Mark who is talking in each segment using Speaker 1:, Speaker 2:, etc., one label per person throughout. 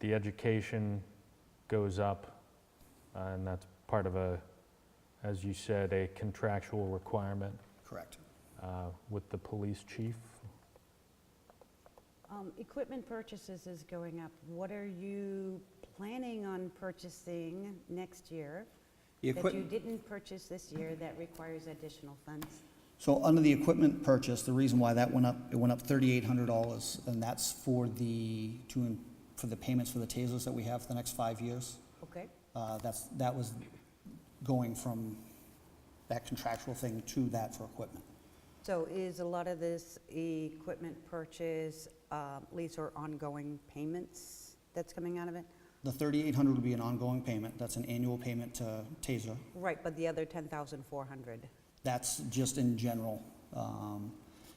Speaker 1: the education goes up, uh, and that's part of a, as you said, a contractual requirement
Speaker 2: Correct.
Speaker 1: uh, with the police chief.
Speaker 3: Um, Equipment purchases is going up. What are you planning on purchasing next year
Speaker 2: The
Speaker 3: that you
Speaker 2: equip,
Speaker 3: didn't purchase this year that requires additional funds?
Speaker 2: so under the equipment purchase, the reason why that went up, it went up thirty-eight hundred dollars, and that's for the, to, in- for the payments for the tasers that we have for the next five years.
Speaker 3: Okay,
Speaker 2: Uh, that's, that was going from that contractual thing to that for equipment.
Speaker 3: so is a lot of this equipment purchase uh, lease or ongoing payments that's coming out of it?
Speaker 2: The thirty-eight hundred would be an ongoing payment, that's an annual payment to TASER.
Speaker 3: Right, but the other 10,400.
Speaker 2: That's just in general. Um,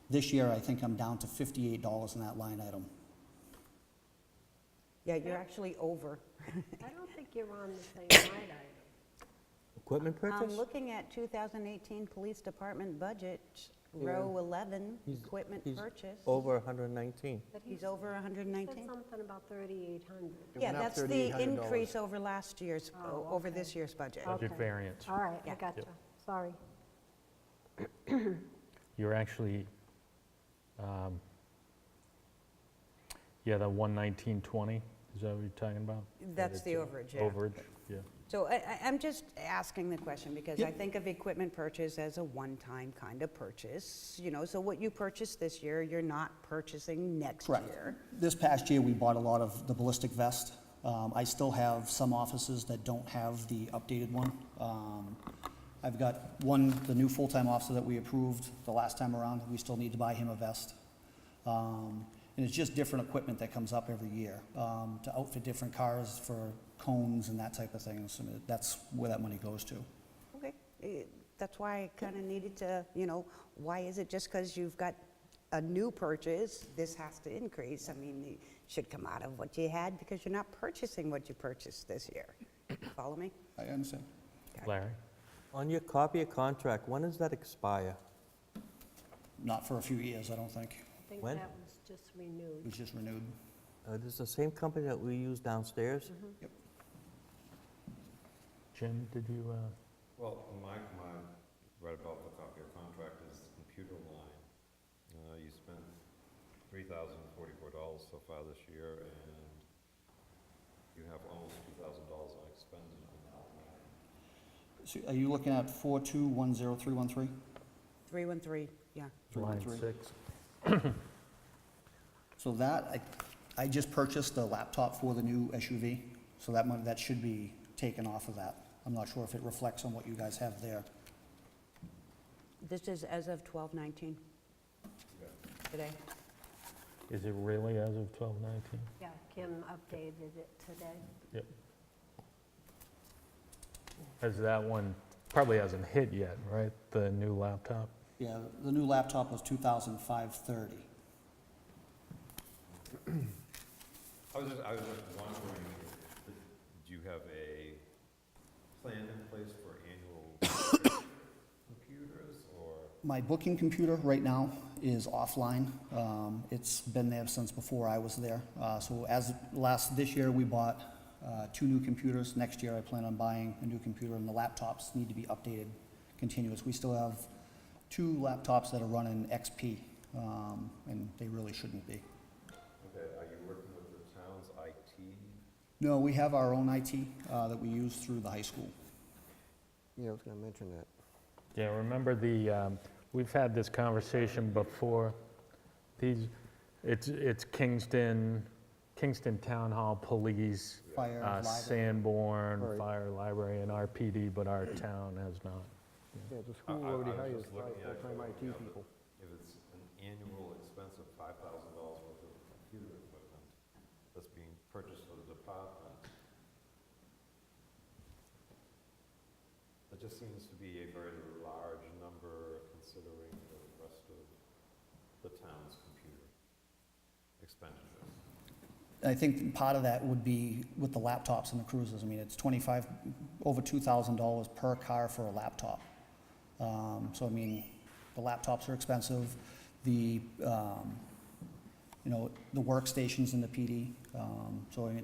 Speaker 2: This year, I think I'm down to fifty-eight dollars in that line item.
Speaker 3: Yeah, you're actually over.
Speaker 4: I don't think you're on the same line item.
Speaker 5: Equipment
Speaker 3: I'm
Speaker 5: purchase?
Speaker 3: Um, looking at 2018 Police Department budget, row 11,
Speaker 5: He's-
Speaker 3: equipment
Speaker 5: he's
Speaker 3: purchase.
Speaker 5: Over 119.
Speaker 4: But he
Speaker 3: He's over
Speaker 4: said
Speaker 3: 119?
Speaker 4: something about 3,800.
Speaker 3: Yeah,
Speaker 6: went up
Speaker 3: that's the
Speaker 6: $3,800.
Speaker 3: increase over last year's,
Speaker 4: Oh,
Speaker 3: over
Speaker 4: okay.
Speaker 3: this year's budget.
Speaker 1: Budget
Speaker 4: Okay.
Speaker 1: variance.
Speaker 4: All right, I
Speaker 3: Yeah.
Speaker 4: gotcha. Sorry.
Speaker 1: You're actually, um, yeah, the 11920, is that what you're talking about?
Speaker 3: That's the
Speaker 1: Yeah.
Speaker 3: overage, yeah.
Speaker 1: Overage, yeah.
Speaker 3: So I- I- I'm just asking the question because I think of equipment purchase as a one-time kind of purchase, you know, so what you purchased this year, you're not purchasing next
Speaker 2: Correct.
Speaker 3: year.
Speaker 2: This past year, we bought a lot of the ballistic vest. Um, I still have some offices that don't have the updated one. Um, I've got one, the new full-time officer that we approved the last time around, we still need to buy him a vest. Um, And it's just different equipment that comes up every year um, to outfit different cars for cones and that type of thing. So That's where that money goes to.
Speaker 3: Okay, eh, that's why I kind of needed to, you know, why is it just because you've got a new purchase, this has to increase? I mean, it should come out of what you had because you're not purchasing what you purchased this year. Follow me?
Speaker 2: I understand.
Speaker 3: Okay.
Speaker 1: Larry?
Speaker 5: On your copy of contract, when does that expire?
Speaker 2: Not for a few years, I don't think.
Speaker 4: I think
Speaker 5: When?
Speaker 4: that was just renewed.
Speaker 2: It was just renewed.
Speaker 5: Uh, This is the same company that we use downstairs?
Speaker 1: Jim, did you, uh,
Speaker 6: Well, my, my, right above the copy of contract is the computer line. Uh, you spent three thousand forty-four dollars so far this year, and you have almost two thousand dollars unexpended on that line.
Speaker 2: So Are you looking at 4210313?
Speaker 3: 313, yeah.
Speaker 1: line
Speaker 2: Three.
Speaker 1: six?
Speaker 2: So that, I, I just purchased the laptop for the new SUV, so that money, that should be taken off of that. I'm not sure if it reflects on what you guys have there.
Speaker 3: This is as of 12/19. Today.
Speaker 1: Is it really as of 1219?
Speaker 4: Yeah, Kim updated it today.
Speaker 1: As that one probably hasn't hit yet, right? The new laptop?
Speaker 2: Yeah, the new laptop was 2,530.
Speaker 6: I was just, I was just wondering, if- do you have a plan in place for annual computers, or?
Speaker 2: My booking computer right now is offline. Um, It's been there since before I was there. Uh, So as, last, this year, we bought uh, two new computers. Next year, I plan on buying a new computer, and the laptops need to be updated continuous. We still have two laptops that are running XP, um, and they really shouldn't be.
Speaker 6: Okay, are you working with the town's IT?
Speaker 2: No, we have our own IT uh, that we use through the high school.
Speaker 5: Yeah, I was going to mention that.
Speaker 1: Yeah, remember the, um, we've had this conversation before. These, it's, it's Kingston, Kingston Town Hall Police,
Speaker 2: Fire,
Speaker 1: uh,
Speaker 2: library.
Speaker 1: Sanborn
Speaker 7: Right.
Speaker 1: Fire Library and RPD, but our town has not.
Speaker 7: Yeah, the
Speaker 6: I-
Speaker 7: school
Speaker 6: I- I
Speaker 7: already
Speaker 6: was
Speaker 7: hires
Speaker 6: just
Speaker 7: five
Speaker 6: looking at
Speaker 7: full-time IT
Speaker 6: it, yeah, but-
Speaker 7: people.
Speaker 6: If it's an annual expense of five thousand dollars worth of computer equipment that's being purchased for the department, that just seems to be a very large number considering the rest of the town's computer expenditures.
Speaker 2: I think part of that would be with the laptops and the cruisers. I mean, it's 25, over $2,000 per car for a laptop. Um, So I mean, the laptops are expensive, the, um, you know, the workstations in the PD. um, So I mean,